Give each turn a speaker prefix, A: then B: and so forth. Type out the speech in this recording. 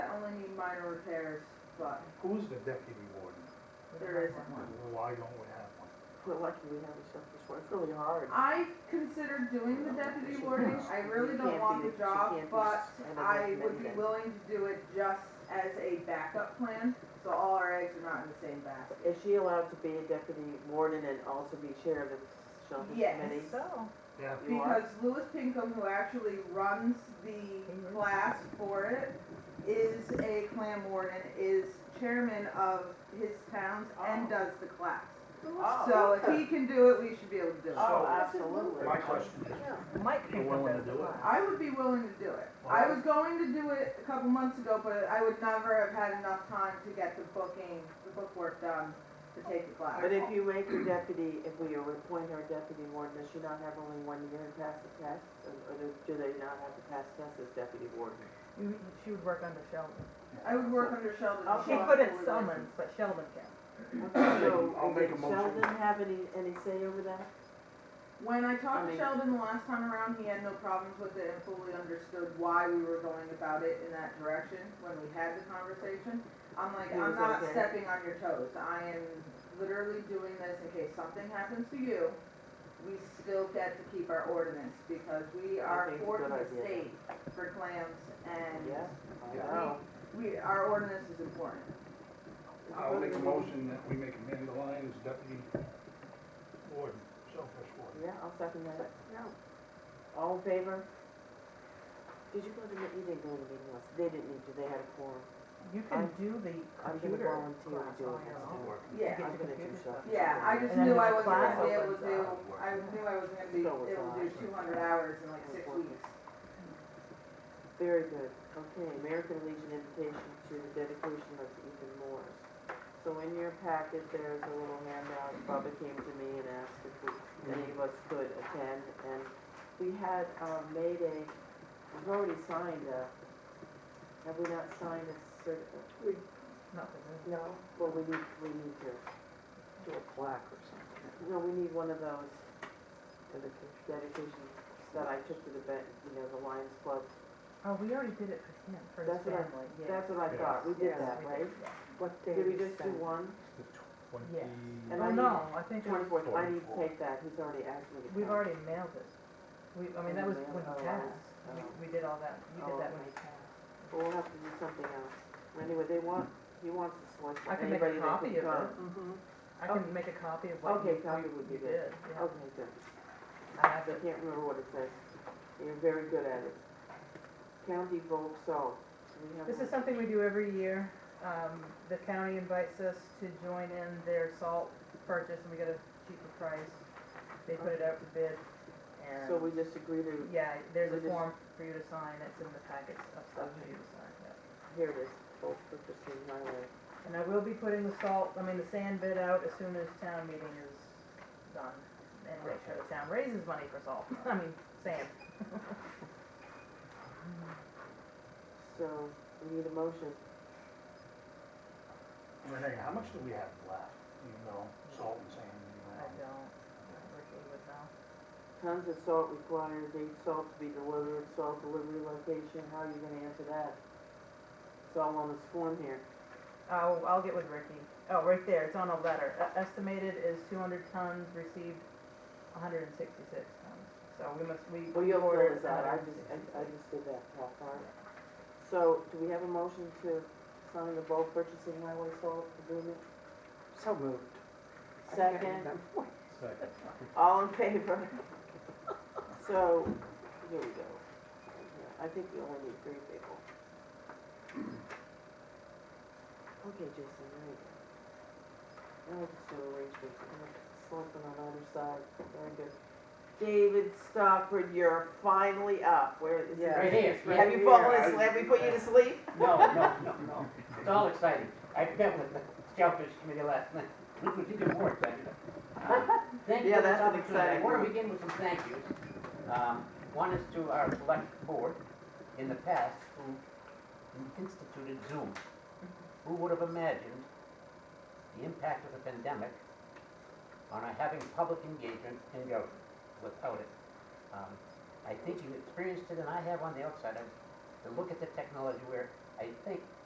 A: minor repairs, but
B: Who's the deputy warden?
A: there isn't one.
B: Why don't we have one?
C: We're lucky we have a this work. it's really hard.
A: I considered doing the deputy warden, I really don't want the job, but I would be willing to do it just as a backup plan, so all our eggs are not in the same basket.
C: Is she allowed to be a deputy warden and also be chair of the shellfish
A: Yes.
C: committee?
D: So,
B: Yeah,
C: You are?
A: Because Louis Pinkham, who actually runs the class for it, is a clam warden, is chairman of his towns and does the class. So if he can do it, we should be able to do it.
D: Oh,
C: Oh, absolutely.
B: my question is,
D: Mike
B: You're
D: picked up
B: willing to
D: as the
B: do it?
D: one.
A: I would be willing to do it. I was going to do it a couple months ago, but I would never have had enough time to get the booking, the bookwork done to take the class.
C: But if you make her deputy, if we appoint her deputy warden, does she not have only one year and pass the test? Or or do do they not have to pass tests as deputy warden?
D: You- She would work under Sheldon.
A: I would work under Sheldon.
C: Oh,
A: and
D: She
A: Sheldon
D: couldn't
A: would-
D: summons, but Sheldon can.
C: So,
B: I'll make a
C: did
B: motion.
C: Sheldon have any, any say over that?
A: When I
C: I
A: talked to
C: mean-
A: Sheldon the last time around, he had no problems with it and fully understood why we were going about it in that direction when we had the conversation. I'm like,
C: He
A: I'm
C: was
A: not
C: okay.
A: stepping on your toes. I am literally doing this in case something happens to you. We still get to keep our ordinance because we are
C: think it's a
A: for
C: good
A: the
C: idea.
A: state for clams
C: Yeah,
A: and
C: I
B: Yeah.
C: know.
A: we, our ordinance is important.
B: I'll make a motion that we make Amanda Lyons deputy warden, shellfish warden.
C: Yeah, I'll second that. All in favor? Did you go to the, you didn't go to the meeting last, they didn't need to, they had a quorum.
D: You can do the
C: I'm gonna
D: computer class
C: volunteer to
D: on
C: do
D: your
C: it.
D: own.
A: Yeah.
D: Get
C: I'm
D: the
C: gonna do
D: computer
C: stuff.
D: stuff.
A: Yeah, I just
D: And then
A: knew I
D: the
A: wasn't gonna
D: class
A: be able
D: opens
A: to do,
D: up.
A: I knew I wasn't gonna be
C: So was
A: able to do
C: I.
A: two hundred hours in like six
C: Unfortunately.
A: weeks.
C: Very good. Okay, American Legion invitation to the dedication of Ethan Morris. So in your packet, there's a little handout. Bubba came to me and asked if we, any of us could attend. And we had, um, made a, we've already signed a, have we not signed a certificate?
D: Nothing.
C: No. Well, we need, we need to do a plaque or something. No, we need one of those dedications that I took to the, Ben- you know, the Lions Club
D: Oh, we already did it for him, for his
C: That's what I-
D: family, yeah.
C: That's what I thought, we did
D: Yes,
C: that,
D: we
C: right?
D: did, yeah.
E: What day
C: Did we
E: is
C: just do
E: that?
C: one?
B: The
D: Yes.
B: twenty,
C: And
D: Oh,
C: I
D: no, I think it was-
C: Twenty-fourth, I need to
B: 24th.
C: take that, he's already asked me to come.
D: we've already mailed it. We, I mean, that was when
C: Oh,
D: he passed.
C: oh.
D: We, we did all that, you
C: Oh,
D: did that when he
C: okay.
D: passed.
C: But we'll have to do something else. Anyway, they want, he wants to select
D: I can make
C: anybody
D: a
C: that
D: copy
C: could come.
D: of it.
A: Mm-hmm.
E: Mhm.
D: I
C: Oh.
D: can make a copy of what
C: Okay,
D: you,
C: copy
D: you-
C: would be
D: you
C: good.
D: did, yeah.
C: Okay, good.
D: I have
C: I
D: it.
C: can't remember what it says. You're very good at it. County vote salt. Do we have
D: This
C: one?
D: is something we do every year. Um, the county invites us to join in their salt purchase and we get a cheaper price. They put it out for bid and.
C: So we just agree to,
D: Yeah, there's
C: we
D: a
C: just-
D: form for you to sign. It's in the packets of stuff for you to sign, yeah.
C: here it is, bulk purchasing highway.
D: And I will be putting the salt, I mean, the sand bid out as soon as town meeting is done. And make sure the town raises money for salt, I mean, sand.
C: So we need a motion.
B: Renee, how much do we have left, you know, salt and sand, you
D: I
B: know?
D: don't, Ricky would know.
C: Tons of salt required, date salt to be delivered, salt delivery location, how are you gonna answer that? It's all on this form here.
D: I'll, I'll get with Ricky. Oh, right there, it's on a letter. E- Estimated is two hundred tons, received hundred and sixty-six tons. So we must, we.
C: Well, you'll fill
D: ordered
C: this out, I just, I, I
D: 166.
C: just did that top part. So, do we have a motion to sign the bulk purchasing highway salt agreement?
E: So moved. I can't
C: Second,
E: remember.
B: Second.
C: all in favor? So, here we go. Yeah, I think we only need three people. Okay, Jason, there you go. I'll just do arrangements, selectmen on either side, very good. David Stockford, you're finally up, where is he?
F: Right here.
C: Have you fallen asleep, have we put you to sleep?
F: No, no, no, no. It's all exciting. I met with the Shellfish Committee last night. It was even more exciting. Um, Thank you
C: Yeah,
F: for this
C: that's an
F: opportunity. I
C: exciting
F: want
C: one.
F: to begin with some thank yous. Um, One is to our select board in the past who instituted Zoom. Who would have imagined the impact of the pandemic on our having public engagement in government without it? Um, I think you experienced it and I have on the outside. I- To look at the technology where I think